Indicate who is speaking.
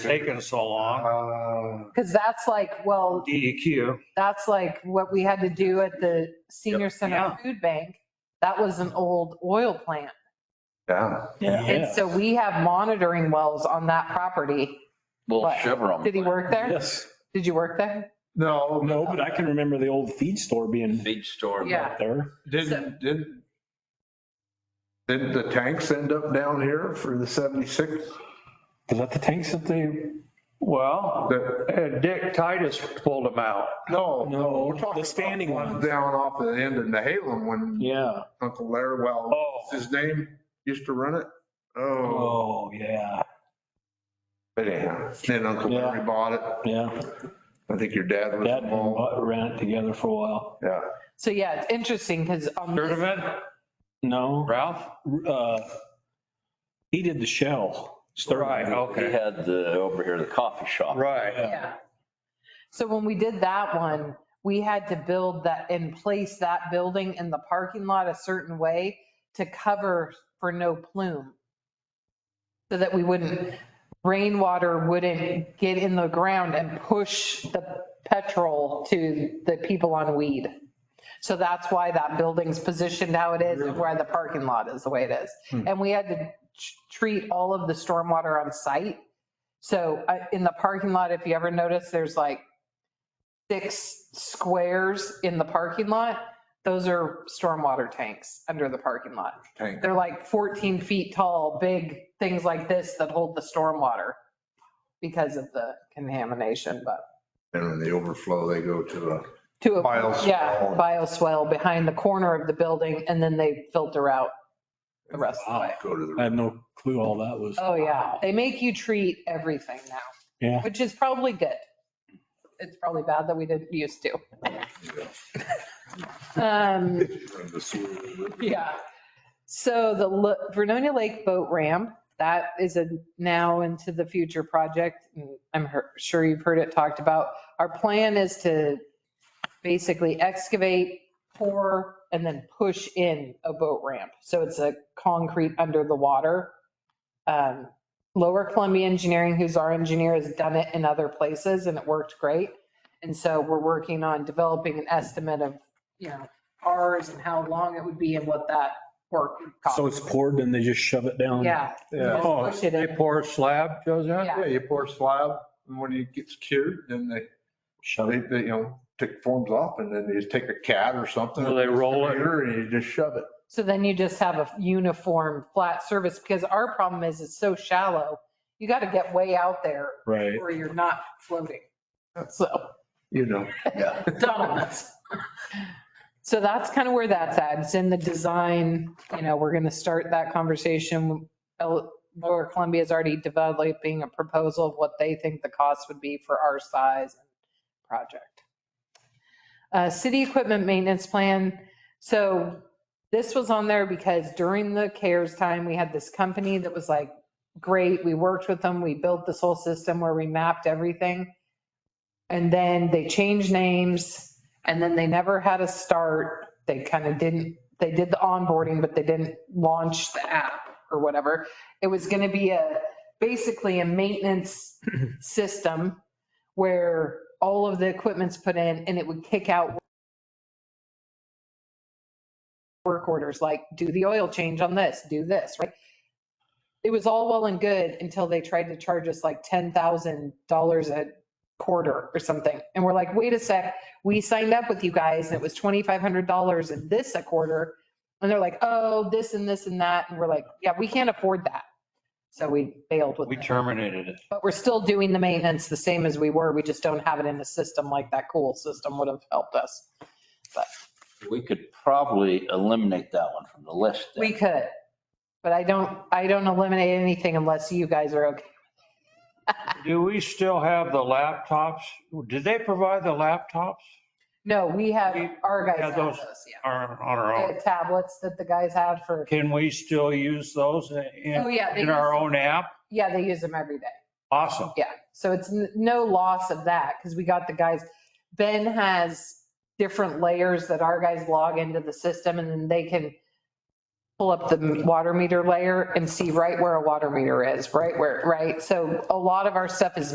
Speaker 1: taking so long.
Speaker 2: Uh,
Speaker 3: Because that's like, well,
Speaker 4: E
Speaker 1: DEQ,
Speaker 3: that's like what we had to do at the senior
Speaker 1: Yeah.
Speaker 3: center food bank. That was an old oil plant.
Speaker 2: Yeah,
Speaker 3: And so we have monitoring wells on that property.
Speaker 5: Little
Speaker 3: What?
Speaker 5: Chevron.
Speaker 3: Did he work there?
Speaker 6: Yes.
Speaker 3: Did you work there?
Speaker 2: no,
Speaker 6: No, but I can remember the old feed store being
Speaker 5: Feed store.
Speaker 3: Yeah.
Speaker 6: there.
Speaker 2: didn't, didn't, didn't the tanks end up down here for the 76?
Speaker 6: Is that the tanks that they?
Speaker 4: Well,
Speaker 2: The-
Speaker 4: uh, Dick Titus pulled them out.
Speaker 2: No.
Speaker 6: No,
Speaker 2: we're talking
Speaker 6: the standing
Speaker 2: about
Speaker 6: ones.
Speaker 2: Down off the end of Nahalem when
Speaker 6: Yeah.
Speaker 2: Uncle Larry, well,
Speaker 6: Oh.
Speaker 2: his name used to run it. Oh,
Speaker 6: Oh, yeah.
Speaker 2: but anyhow, then Uncle
Speaker 6: Yeah.
Speaker 2: Larry bought it.
Speaker 6: Yeah.
Speaker 2: I think your dad was
Speaker 6: That and
Speaker 2: involved.
Speaker 6: Bud ran it together for a while.
Speaker 2: Yeah.
Speaker 3: So yeah, it's interesting because on
Speaker 4: Heard of
Speaker 3: this,
Speaker 4: it,
Speaker 6: No.
Speaker 4: Ralph?
Speaker 6: Uh, he did the shell. Stirling.
Speaker 4: Right,
Speaker 5: He
Speaker 4: okay,
Speaker 5: had the, over here, the coffee shop.
Speaker 4: right.
Speaker 3: yeah. So when we did that one, we had to build that and place that building in the parking lot a certain way to cover for no plume. So that we wouldn't, rainwater wouldn't get in the ground and push the petrol to the people on weed. So that's why that building's positioned how it is and why the parking lot is the way it is. And we had to t- treat all of the stormwater on site. So I- in the parking lot, if you ever notice, there's like six squares in the parking lot. Those are stormwater tanks under the parking lot.
Speaker 2: Tank.
Speaker 3: They're like 14 feet tall, big things like this that hold the stormwater because of the contamination, but
Speaker 2: And when they overflow, they go to a.
Speaker 3: to a.
Speaker 2: Bioswale.
Speaker 3: Yeah, bioswale behind the corner of the building and then they filter out the rest of the way.
Speaker 6: Oh.
Speaker 2: Go to the.
Speaker 6: I have no clue all that was.
Speaker 3: Oh, yeah. They make you treat everything now,
Speaker 6: Yeah.
Speaker 3: which is probably good. It's probably bad that we didn't used to. Um,
Speaker 2: from the sewer.
Speaker 3: yeah. So the Lo- Vernonia Lake Boat Ramp, that is a now into the future project. I'm her- sure you've heard it talked about. Our plan is to basically excavate, pour, and then push in a boat ramp. So it's a concrete under the water. Um, Lower Columbia Engineering, who's our engineer, has done it in other places and it worked great. And so we're working on developing an estimate of, you know, ours and how long it would be and what that work would
Speaker 6: So
Speaker 3: cost.
Speaker 6: it's poured and they just shove it down.
Speaker 3: Yeah. Just
Speaker 2: Yeah.
Speaker 4: Oh,
Speaker 3: push it
Speaker 4: they
Speaker 3: in.
Speaker 4: pour a slab, Joseph?
Speaker 3: Yeah.
Speaker 2: Yeah, you pour slab and when it gets cured, then they
Speaker 6: Shove
Speaker 2: They,
Speaker 6: it.
Speaker 2: they, you know, take forms off and then they just take a cat or something.
Speaker 4: Well, they roll it.
Speaker 2: And you just shove it.
Speaker 3: So then you just have a uniform flat surface because our problem is it's so shallow. You got to get way out there
Speaker 6: Right.
Speaker 3: or you're not floating. So.
Speaker 2: You know,
Speaker 3: donuts. So that's kind of where that's at. It's in the design, you know, we're going to start that conversation. El- Lower Columbia is already developing a proposal of what they think the cost would be for our size and project. Uh, City equipment maintenance plan. So this was on there because during the CARES time, we had this company that was like, great, we worked with them, we built this whole system where we mapped everything. And then they changed names and then they never had a start. They kind of didn't, they did the onboarding, but they didn't launch the app or whatever. It was going to be a, basically a maintenance system where all of the equipment's put in and it would kick out work orders, like do the oil change on this, do this, right? It was all well and good until they tried to charge us like $10,000 a quarter or something. And we're like, wait a sec, we signed up with you guys and it was $2,500 and this a quarter. And they're like, oh, this and this and that. And we're like, yeah, we can't afford that. So we bailed with
Speaker 4: We
Speaker 3: them.
Speaker 4: terminated it.
Speaker 3: But we're still doing the maintenance the same as we were. We just don't have it in a system like that cool system would have helped us.
Speaker 5: We could probably eliminate that one from the list. then.
Speaker 3: We could, but I don't, I don't eliminate anything unless you guys are okay.
Speaker 4: Do we still have the laptops? Did they provide the laptops?
Speaker 3: No, we have, our guys
Speaker 4: Yeah,
Speaker 3: have
Speaker 4: those-
Speaker 3: those, Oh. yeah.
Speaker 4: Or on our own?
Speaker 3: The tablets that the guys have for,
Speaker 4: Can we still use those
Speaker 3: Oh,
Speaker 4: in,
Speaker 3: yeah, they
Speaker 4: in our
Speaker 3: use-
Speaker 4: own app?
Speaker 3: yeah, they use them every day.
Speaker 4: Awesome.
Speaker 3: Yeah, so it's n- no loss of that because we got the guys, Ben has different layers that our guys log into the system and then they can pull up the water meter layer and see right where a water meter is, right where, right? So a lot of our stuff is